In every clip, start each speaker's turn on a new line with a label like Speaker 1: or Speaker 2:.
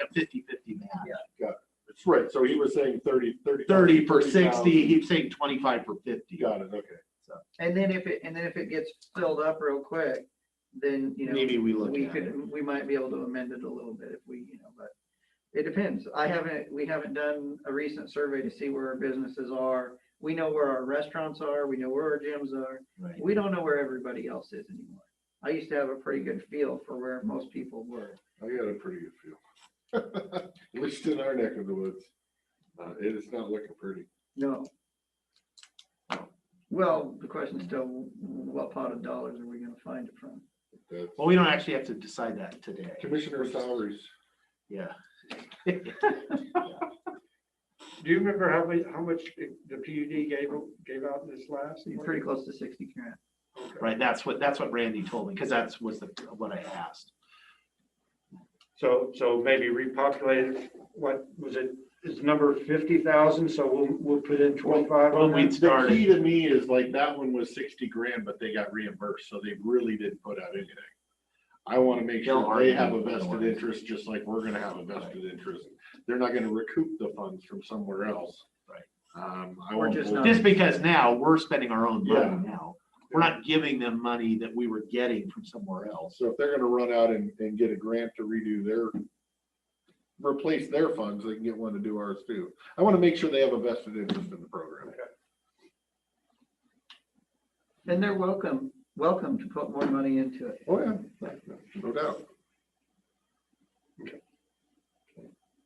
Speaker 1: like a 50-50 man.
Speaker 2: That's right, so he was saying thirty, thirty.
Speaker 1: Thirty per
Speaker 2: 30,000.
Speaker 1: sixty, he's saying twenty-five per fifty.
Speaker 2: Got it, okay.
Speaker 3: And then if it, and then if it gets filled up real quick, then, you know.
Speaker 1: Maybe we look
Speaker 3: We
Speaker 1: at it.
Speaker 3: could, we might be able to amend it a little bit if we, you know, but it depends. I haven't, we haven't done a recent survey to see where our businesses are. We know where our restaurants are, we know where our gyms are.
Speaker 1: Right.
Speaker 3: We don't know where everybody else is anymore. I used to have a pretty good feel for where most people were.
Speaker 2: I got a pretty good feel. At least in our neck of the woods. Uh, it is not looking pretty.
Speaker 3: No. Well, the question is still, what pot of dollars are we gonna find it from?
Speaker 2: That's-
Speaker 1: Well, we don't actually have to decide that today.
Speaker 2: Commissioner salaries,
Speaker 1: Yeah.
Speaker 4: Do you remember how many, how much the the PUD gave, gave out this last?
Speaker 3: You're pretty close to sixty grand.
Speaker 4: Okay.
Speaker 1: Right, that's what, that's what Randy told me, because that's was the, what I asked.
Speaker 4: So, so maybe repopulate, it. what was it, is number fifty thousand, so we'll, we'll put in twenty-five
Speaker 1: Well,
Speaker 4: on
Speaker 1: we
Speaker 4: that?
Speaker 2: the
Speaker 1: started,
Speaker 2: key to me is like that one was sixty grand, but they got reimbursed, so they really didn't put out anything. I want to make
Speaker 1: They'll
Speaker 2: sure they
Speaker 1: argue
Speaker 2: have a
Speaker 1: otherwise.
Speaker 2: vested interest, just like we're gonna have a vested interest. They're not gonna recoup the funds from somewhere else.
Speaker 1: Right.
Speaker 2: Um, I
Speaker 3: We're
Speaker 2: won't.
Speaker 3: just
Speaker 2: believe-
Speaker 3: not-
Speaker 1: just because now we're spending our own
Speaker 2: Yeah.
Speaker 1: money now. We're not giving them money that we were getting from somewhere else.
Speaker 2: So if they're gonna run out and, and get a grant to redo their, replace their funds, they can get one to do ours too. I wanna make sure they have a vested interest in the program.
Speaker 3: And they're welcome, welcome to put more money into it.
Speaker 2: Oh, yeah, no doubt.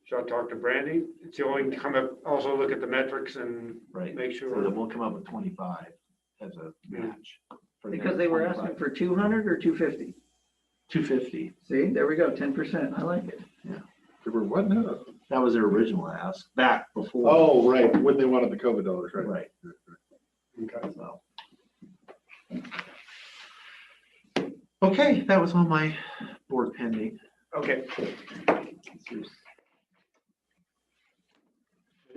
Speaker 4: So I talked to Brandy, so we can come up, also look at the metrics and
Speaker 1: Right,
Speaker 4: make
Speaker 1: so that
Speaker 4: sure.
Speaker 1: we'll come up with twenty-five as a match. for their
Speaker 3: Because they were asking
Speaker 1: 25.
Speaker 3: for two hundred or two fifty.
Speaker 1: Two fifty,
Speaker 3: See, there we go, ten percent. I like it.
Speaker 2: They were what now?
Speaker 1: that was their original ask, back before.
Speaker 2: Oh, right, when they wanted the COVID dollars, right?
Speaker 1: Right,
Speaker 4: Okay.
Speaker 1: so. Okay, that was all my board pending.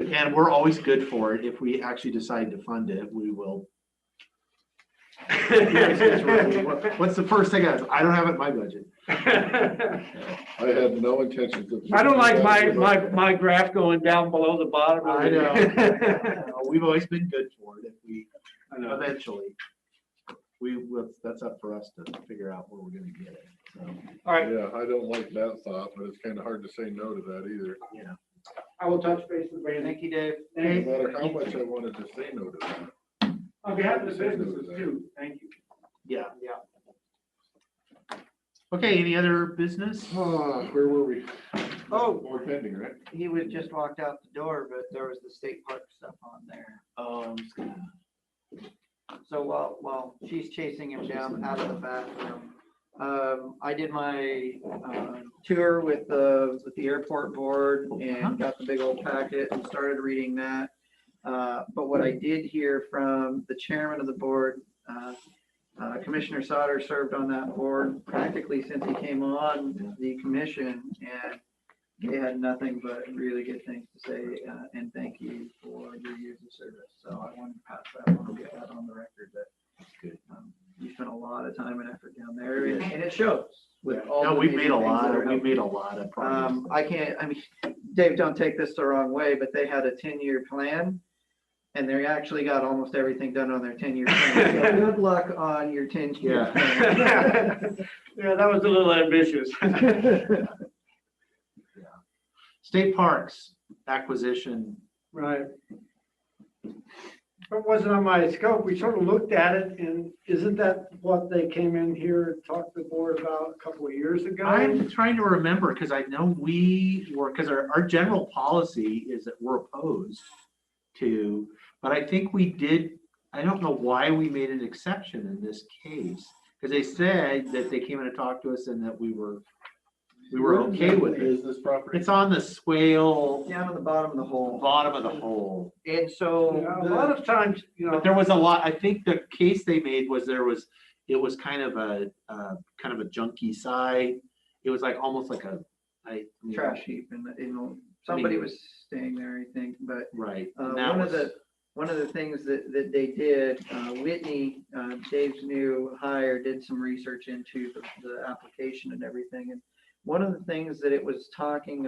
Speaker 4: Okay,
Speaker 1: And we're always good for it. If we actually decide to fund it, we will. What's the first thing? I I don't have it in my budget.
Speaker 4: I
Speaker 2: I had no intentions of.
Speaker 4: don't like my, my, my graph going down below the bottom. of
Speaker 1: I
Speaker 4: it.
Speaker 1: know. We've always been good for it if we, eventually. We, will- that's up for us to figure out where we're gonna get it, so,
Speaker 4: All right,
Speaker 2: Yeah, I don't like that thought, but it's kinda hard to say no to that either.
Speaker 1: yeah.
Speaker 4: I will touch base with Brandy.
Speaker 3: you, Dave.
Speaker 2: No
Speaker 4: Thank you.
Speaker 2: matter how much I wanted to say no to that.
Speaker 4: On behalf of the businesses too, thank you.
Speaker 1: Yeah.
Speaker 4: Yeah.
Speaker 1: Okay, any other business?
Speaker 2: Ah, Where were we?
Speaker 3: Oh.
Speaker 2: Board pending, right?
Speaker 3: He was just walked out the door, but there was the state park stuff on there.
Speaker 1: Um, just gonna-
Speaker 3: So while, while she's chasing him down out of the bathroom, um, I did my, uh, tour with the, with the airport board and got the big old packet and started reading that. Uh, but what I did hear from the chairman of the board, uh, uh, Commissioner Sauter served on that board practically since he came on the commission and he had nothing but really good things to say, uh, and thank you for your years of service. So I wanted to pass that on, get that on the record that um, you spent a lot of time and effort down there and and it shows with all.
Speaker 1: No,
Speaker 3: the
Speaker 1: we've made
Speaker 3: amazing
Speaker 1: a
Speaker 3: things
Speaker 1: lot,
Speaker 3: that are
Speaker 1: of- we've made a lot of
Speaker 3: um,
Speaker 1: progress.
Speaker 3: I can't, I mean, Dave, don't take this the wrong way, but they had a ten-year plan. And they actually got almost everything done on their ten-year plan. So Good luck on your
Speaker 1: Yeah.
Speaker 3: ten-year. plan.
Speaker 4: Yeah, that was a little ambitious.
Speaker 1: State parks acquisition,
Speaker 4: Right. It wasn't on my scope. We sort of looked at it and isn't that what they came in here and talked to the board about a couple of years ago?
Speaker 1: I'm trying to remember, because I know we were, because our, our general policy is that we're opposed to, but I think we did, I don't know why we made an exception in this case, because they said that they came in and talked to us and that we were, we were okay with it.
Speaker 2: Is this property?
Speaker 1: It's on the swale,
Speaker 3: Down at the bottom of the hole.
Speaker 1: bottom of the hole.
Speaker 3: And
Speaker 4: Yeah,
Speaker 3: so.
Speaker 4: A
Speaker 3: the-
Speaker 4: lot of times, you know.
Speaker 1: But there was a lot, I think the case they made was there was, it was kind of a, uh, kind of a junky side. It was like, almost like a, I.
Speaker 3: Trash heap and, you know, somebody was staying there, I think, but
Speaker 1: Right.
Speaker 3: Uh,
Speaker 1: and that
Speaker 3: one of
Speaker 1: was-
Speaker 3: the, one of the things that, that they did, uh, Whitney, uh, Dave's new hire, did some research into the, the application and everything. And one of the things that it was talking